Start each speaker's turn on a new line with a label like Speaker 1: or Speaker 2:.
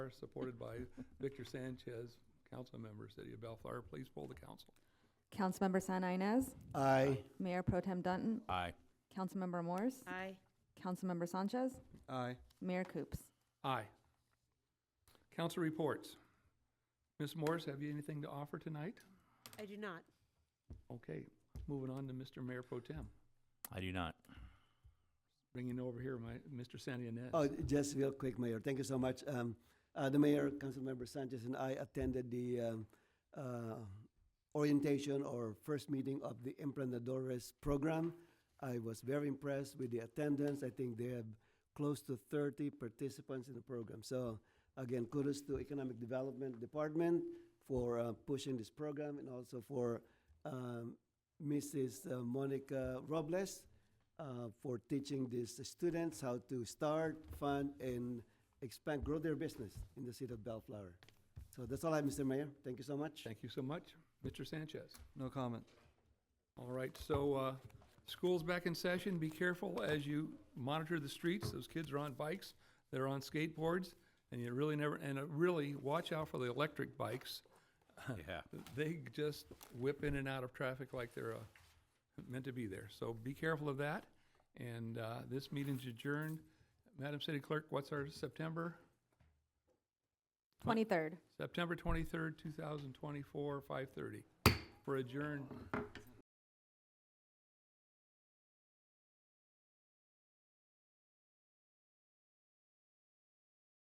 Speaker 1: Bellflower, supported by Victor Sanchez, council member, City of Bellflower. Please poll the council.
Speaker 2: Councilmember San Inez,
Speaker 3: Aye.
Speaker 2: Mayor Pro Tem Dunton,
Speaker 4: Aye.
Speaker 2: Councilmember Morse,
Speaker 5: Aye.
Speaker 2: Councilmember Sanchez,
Speaker 3: Aye.
Speaker 2: Mayor Coops.
Speaker 1: Aye. Council reports. Ms. Morris, have you anything to offer tonight?
Speaker 5: I do not.
Speaker 1: Okay, moving on to Mr. Mayor Pro Tem.
Speaker 4: I do not.
Speaker 1: Bringing over here my, Mr. San Ynez.
Speaker 3: Oh, just real quick, Mayor, thank you so much. Um, uh, the mayor, Councilmember Sanchez and I attended the, um, uh, orientation or first meeting of the Emprendedores program. I was very impressed with the attendance. I think they have close to thirty participants in the program. So again, kudos to Economic Development Department for, uh, pushing this program and also for, um, Mrs. uh, Monica Robles, uh, for teaching these students how to start, fund, and expand, grow their business in the city of Bellflower. So that's all I have, Mr. Mayor. Thank you so much.
Speaker 1: Thank you so much. Mr. Sanchez.
Speaker 6: No comment.
Speaker 1: All right, so, uh, school's back in session. Be careful as you monitor the streets. Those kids are on bikes, they're on skateboards, and you really never, and uh, really, watch out for the electric bikes.
Speaker 4: Yeah.
Speaker 1: They just whip in and out of traffic like they're, uh, meant to be there. So be careful of that. And, uh, this meeting's adjourned. Madam City Clerk, what's our September? What?
Speaker 2: Twenty-third.
Speaker 1: September twenty-third, two thousand twenty-four, five thirty. We're adjourned.